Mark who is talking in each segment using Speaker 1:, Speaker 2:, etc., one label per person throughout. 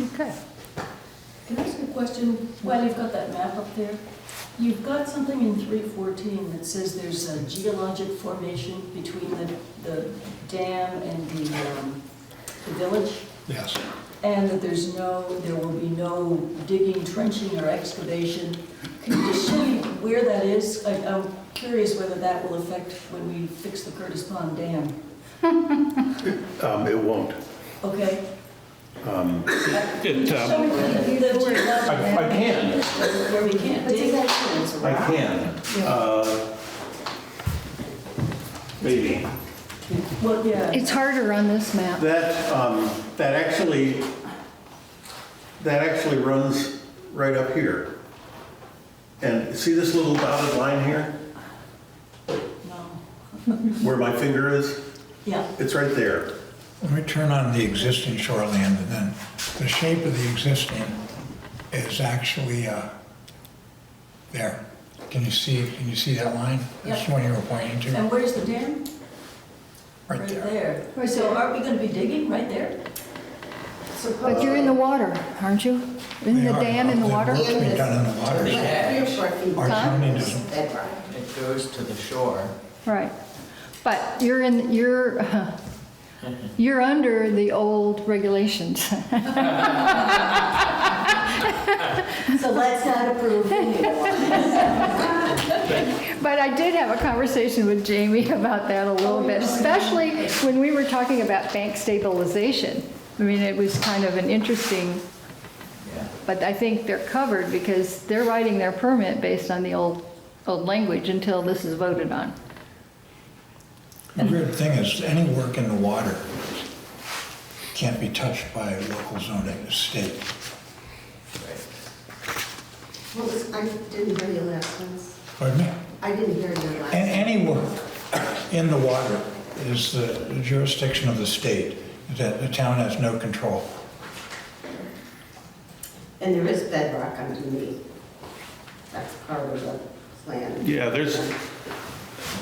Speaker 1: Okay.
Speaker 2: Can I ask a question while you've got that map up there? You've got something in 314 that says there's a geologic formation between the, the dam and the, um, the village,
Speaker 3: Yes,
Speaker 2: and that there's no, there will be no digging, trenching, or excavation. Can you just show me where that is? I- I'm curious whether that will affect when we fix the Curtis Pond Dam,
Speaker 4: Um, It won't.
Speaker 2: okay?
Speaker 3: Um, it,
Speaker 2: Show
Speaker 3: um,
Speaker 2: me where the- the geologic
Speaker 4: I I can,
Speaker 2: where we can't dig.
Speaker 4: I can. Uh, Maybe.
Speaker 2: Well, yeah,
Speaker 1: It's harder on this map.
Speaker 4: That, um, that actually, that actually runs right up here. And see this little dotted line here,
Speaker 2: no,
Speaker 4: where my finger is?
Speaker 2: yeah.
Speaker 4: It's right there.
Speaker 3: let me turn on the existing shoreland and then the shape of the existing is actually, uh, there. Can you see, can you see that line? That's the one you were pointing to,
Speaker 2: And where's the dam?
Speaker 3: right there.
Speaker 1: Right
Speaker 2: So
Speaker 1: there.
Speaker 2: aren't we gonna be digging right there?
Speaker 1: But you're in the water, aren't you? Isn't
Speaker 3: They
Speaker 1: the
Speaker 3: are.
Speaker 1: dam in the
Speaker 3: They
Speaker 1: water?
Speaker 3: work being done in the water. Our
Speaker 1: Huh?
Speaker 3: county doesn't,
Speaker 5: It goes to the shore.
Speaker 1: Right. But you're in, you're, you're under the old regulations.
Speaker 2: So let's not approve
Speaker 1: But I did have a conversation with Jamie about that a little
Speaker 2: Oh,
Speaker 1: bit, especially when we were talking about bank stabilization. I mean, it was kind of an interesting,
Speaker 5: Yeah.
Speaker 1: but I think they're covered because they're writing their permit based on the old, old language until this is voted on.
Speaker 3: the weird thing is, any work in the water can't be touched by local zoning, state.
Speaker 6: What was, I didn't hear your last sentence.
Speaker 3: Pardon me?
Speaker 6: I didn't hear your last.
Speaker 3: A- Any work in the water is the jurisdiction of the state, that the town has no control.
Speaker 6: And there is bedrock underneath. That's part of the plan.
Speaker 4: Yeah, there's,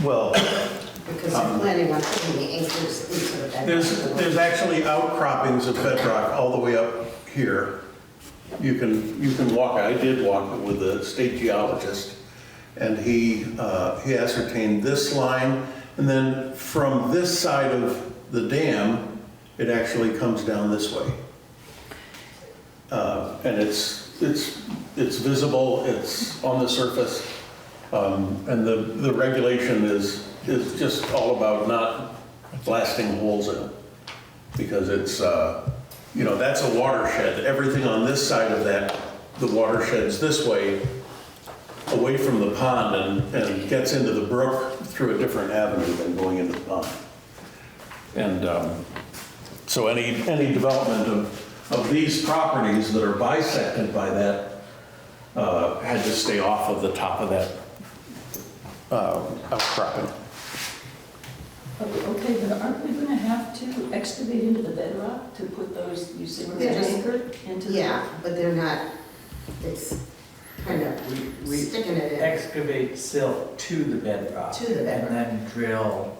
Speaker 4: well,
Speaker 6: Because they're planning on putting the acres into the bedrock.
Speaker 4: there's, there's actually outcroppings of bedrock all the way up here. You can, you can walk, I did walk it with a state geologist, and he, uh, he ascertained this line, and then from this side of the dam, it actually comes down this way. Uh, And it's, it's, it's visible, it's on the surface, um, and the, the regulation is, is just all about not blasting holes in it. Because it's, uh, you know, that's a watershed, everything on this side of that, the watershed's this way, away from the pond and, and gets into the brook through a different avenue than going into the pond. And, um, so any, any development of, of these properties that are bisected by that uh, had to stay off of the top of that uh, outcropping.
Speaker 2: Okay, but aren't we gonna have to excavate into the bedrock to put those, you say,
Speaker 6: Yeah, just-
Speaker 2: anchor into the?
Speaker 6: Yeah, but they're not, it's kind of
Speaker 5: We, we
Speaker 6: sticking it in.
Speaker 5: excavate silt to the bedrock.
Speaker 6: To the bedrock.
Speaker 5: And then drill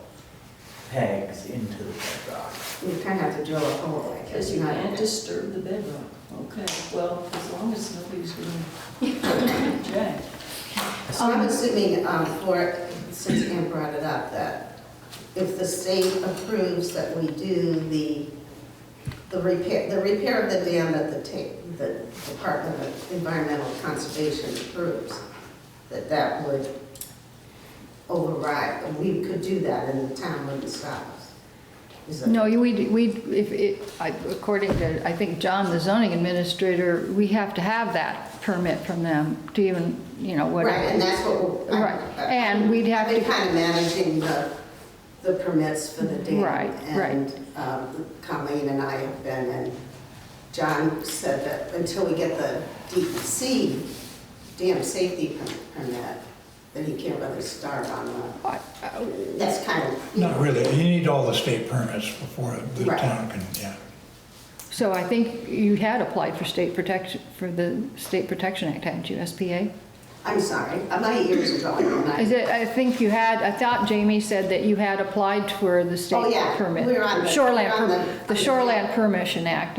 Speaker 5: pegs into the bedrock.
Speaker 6: You kind of have to drill a hole like this.
Speaker 2: Because you can't disturb the bedrock. Okay, well, as long as nobody's gonna object.
Speaker 6: So I'm assuming, um, for, since Ann brought it up, that if the state approves that we do the, the repair, the repair of the dam that the ta, the Department of Environmental Conservation approves, that that would override, and we could do that and the town wouldn't stop us. Is that-
Speaker 1: No, we, we, if, it- I- according to, I think, John, the zoning administrator, we have to have that permit from them to even, you know,
Speaker 6: Right,
Speaker 1: whatever.
Speaker 6: and that's what we're.
Speaker 1: Right, and we'd have to-
Speaker 6: They're kind of managing the, the permits for the dam.
Speaker 1: Right, right.
Speaker 6: And um, Colleen and I have been, and John said that until we get the DEC dam safety per- permit, then he can't really start on
Speaker 1: I-
Speaker 6: the, that's kind of.
Speaker 3: Not really, you need all the state permits before the
Speaker 6: Right.
Speaker 3: town can, yeah.
Speaker 1: So I think you had applied for state protection, for the State Protection Act, hadn't you, SPA?
Speaker 6: I'm sorry, uh, my ears are going. when I-
Speaker 1: Is it, I think you had, I thought Jamie said that you had applied for the
Speaker 6: Oh,
Speaker 1: state
Speaker 6: yeah,
Speaker 1: permit.
Speaker 6: we're on the-
Speaker 1: Shoreland
Speaker 6: we're on
Speaker 1: per-
Speaker 6: the-
Speaker 1: The Shoreland Permission Act,